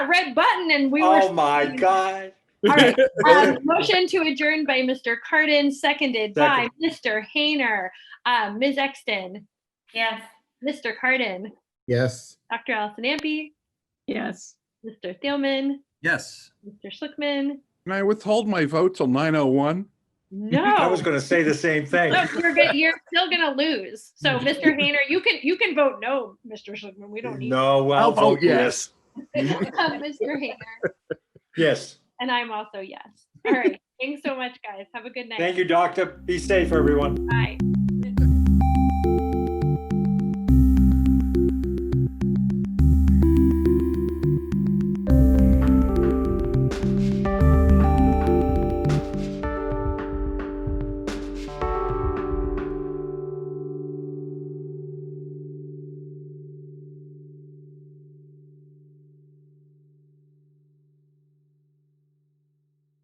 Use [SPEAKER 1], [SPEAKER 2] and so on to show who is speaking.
[SPEAKER 1] that red button and we were.
[SPEAKER 2] Oh my God.
[SPEAKER 1] All right, um, motion to adjourn by Mr. Cardin, seconded by Mr. Hayner. Um, Ms. Exton,
[SPEAKER 3] Yes.
[SPEAKER 1] Mr. Cardin,
[SPEAKER 4] Yes.
[SPEAKER 1] Dr. Allison Ampe,
[SPEAKER 3] Yes.
[SPEAKER 1] Mr. Thielman,
[SPEAKER 5] Yes.
[SPEAKER 1] Mr. Schlickman.
[SPEAKER 6] Can I withhold my vote till 9:01?
[SPEAKER 2] I
[SPEAKER 1] No,
[SPEAKER 2] was going to say the same thing.
[SPEAKER 1] no, you're, go- you're still gonna lose. So, Mr. Hayner, you can, you can vote no, Mr. Schlickman. We don't need.
[SPEAKER 2] No, well, oh,
[SPEAKER 6] I'll vote yes.
[SPEAKER 1] Mr. Hayner,
[SPEAKER 2] Yes.
[SPEAKER 1] and I'm also yes. All right, thanks so much, guys. Have a good night.
[SPEAKER 2] Thank you, doctor. Be safe, everyone.
[SPEAKER 1] Bye.